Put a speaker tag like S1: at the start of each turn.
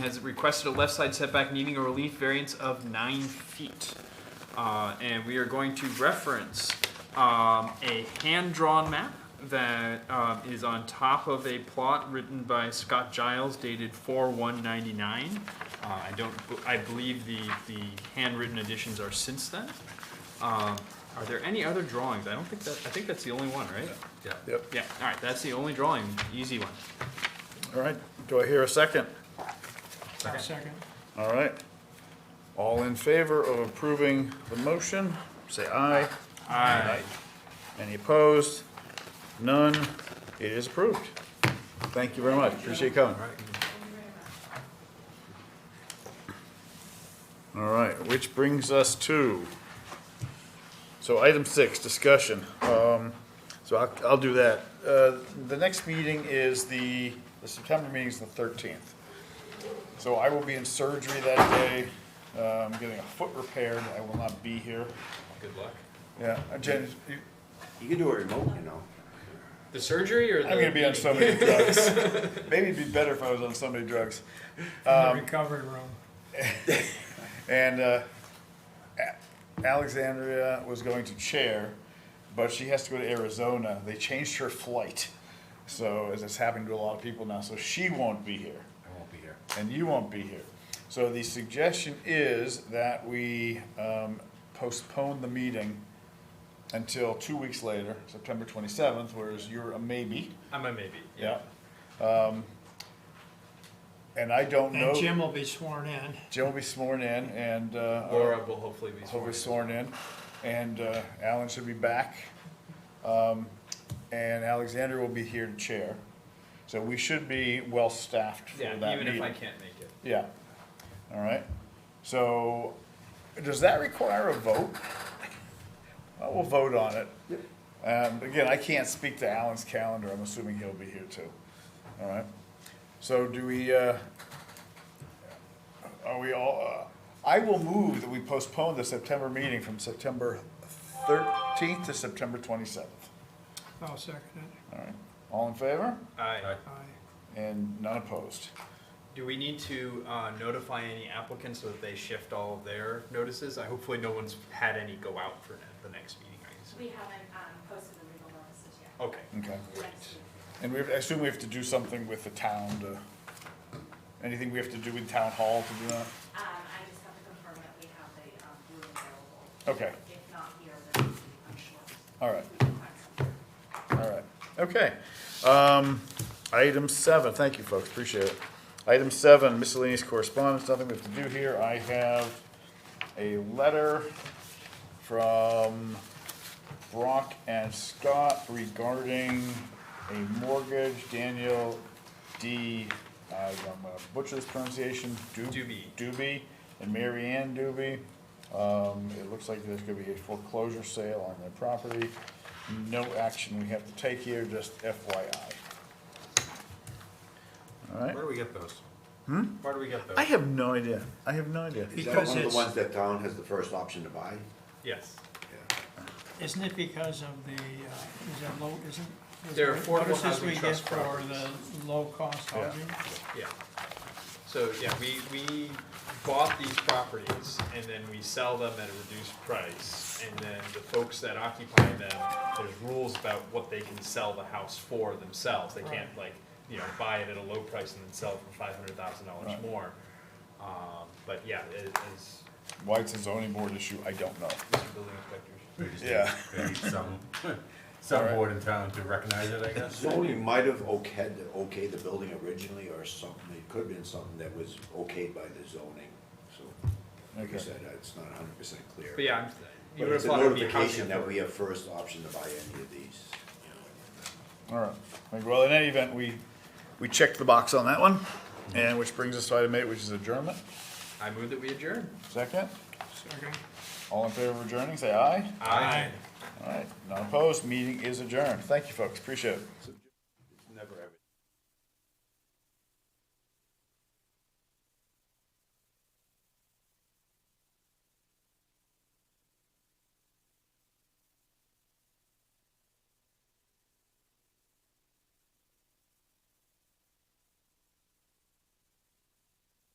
S1: has requested a left side setback needing a relief variance of nine feet. Uh, and we are going to reference, um, a hand-drawn map that, um, is on top of a plot written by Scott Giles dated four one ninety-nine. Uh, I don't, I believe the, the handwritten editions are since then. Um, are there any other drawings? I don't think that, I think that's the only one, right? Yeah.
S2: Yep.
S1: Yeah, all right, that's the only drawing, easy one.
S2: All right, do I hear a second?
S3: Second.
S2: All right. All in favor of approving the motion, say aye. Aye. Any opposed? None. It is approved. Thank you very much. Appreciate you coming. All right, which brings us to, so item six, discussion. Um, So I'll, I'll do that. Uh, The next meeting is the, the September meeting is the 13th. So I will be in surgery that day, um, getting a foot repaired, I will not be here.
S1: Good luck.
S2: Yeah, uh, Jen, you-
S4: You can do a remote, you know.
S1: The surgery or the?
S2: I'm gonna be on so many drugs. Maybe it'd be better if I was on so many drugs. Um,
S3: The recovery room.
S2: And uh, A- Alexandria was going to chair, but she has to go to Arizona. They changed her flight. So, as it's happening to a lot of people now, so she won't be here.
S4: I won't be here.
S2: and you won't be here. So the suggestion is that we um, postpone the meeting until two weeks later, September 27th, whereas you're a maybe.
S1: I'm a maybe.
S2: Yeah. Um, And I don't know,
S3: And Jim will be sworn in.
S2: Jim will be sworn in and uh,
S1: Laura will hopefully be.
S2: he'll be sworn in, and uh, Alan should be back. Um, And Alexander will be here to chair. So we should be well-staffed for that
S1: Yeah,
S2: meeting.
S1: even if I can't make it.
S2: Yeah, all right. So, does that require a vote? Well, we'll vote on it. Um, again, I can't speak to Alan's calendar, I'm assuming he'll be here too, all right? So do we, uh, are we all, uh, I will move that we postpone the September meeting from September thirteenth to September twenty-seventh.
S3: I'll second it.
S2: All in favor?
S1: Aye.
S3: Aye.
S2: And none opposed?
S1: Do we need to uh, notify any applicants so that they shift all of their notices? I hopefully no one's had any go out for the next meeting, I guess.
S5: We haven't um, posted the legal notices yet.
S1: Okay.
S2: Okay.
S5: Next week.
S2: And we, have- I assume we have to do something with the town to, anything we have to do with town hall to do that?
S5: Um, I just have to confirm that we have the um, room available.
S2: Okay,
S5: If not here, then I'm sure.
S2: all right,
S5: we can find something.
S2: all right, okay. Um, item seven, thank you folks, appreciate it. Item seven, miscellaneous correspondence, nothing we have to do here. I have a letter from Brock and Scott regarding a mortgage, Daniel D., I'm gonna butcher this pronunciation, Du-
S1: Doobie.
S2: Doobie and Mary Ann Doobie. Um, it looks like there's gonna be a foreclosure sale on their property. No action we have to take here, just FYI. All right.
S6: Where do we get those? Hmm? Where do we get those?
S2: I have no idea. I have no idea.
S4: Is that
S3: Because
S4: one of
S3: it's-
S4: the ones that town has the first option to buy?
S1: Yes.
S4: Yeah.
S3: Isn't it because of the, uh, is that low, isn't? is
S1: They're
S3: there
S1: affordable
S3: notices
S1: housing
S3: we get
S1: trust
S3: For the low-cost
S2: Yeah.
S3: housing?
S1: Yeah. So, yeah, we, we bought these properties and then we sell them at a reduced price. And then the folks that occupy them, there's rules about what they can sell the house for themselves. They can't like, you know, buy it at a low price and then sell it for five hundred thousand dollars
S2: Right.
S1: more. Um, but yeah, it is,
S2: Why it's a zoning board issue, I don't know.
S1: Mr. Building Inspector.
S6: We just
S2: Yeah.
S6: need- we need Some, some
S2: Alright.
S6: board in town to recognize it, I guess.
S4: Zoning might have okayed, the- okayed the building originally or something, it could have been something that was okayed by the zoning, so. Like
S2: Okay.
S4: I said, it's not hundred percent clear.
S1: But yeah, I'm, you
S4: But
S1: would have
S4: it's a
S1: thought it would be a housing
S4: notification that
S1: authority.
S4: we have first option to buy any of these. you know.
S2: All right. Like, Well, in any event, we, we checked the box on that one. And which brings us to item eight, which is adjournment.
S1: I move that we adjourn.
S2: Second,
S3: Second.
S2: all in favor of adjourning, say aye.
S1: Aye.
S2: All right, none opposed, meeting is adjourned. Thank you, folks, appreciate it.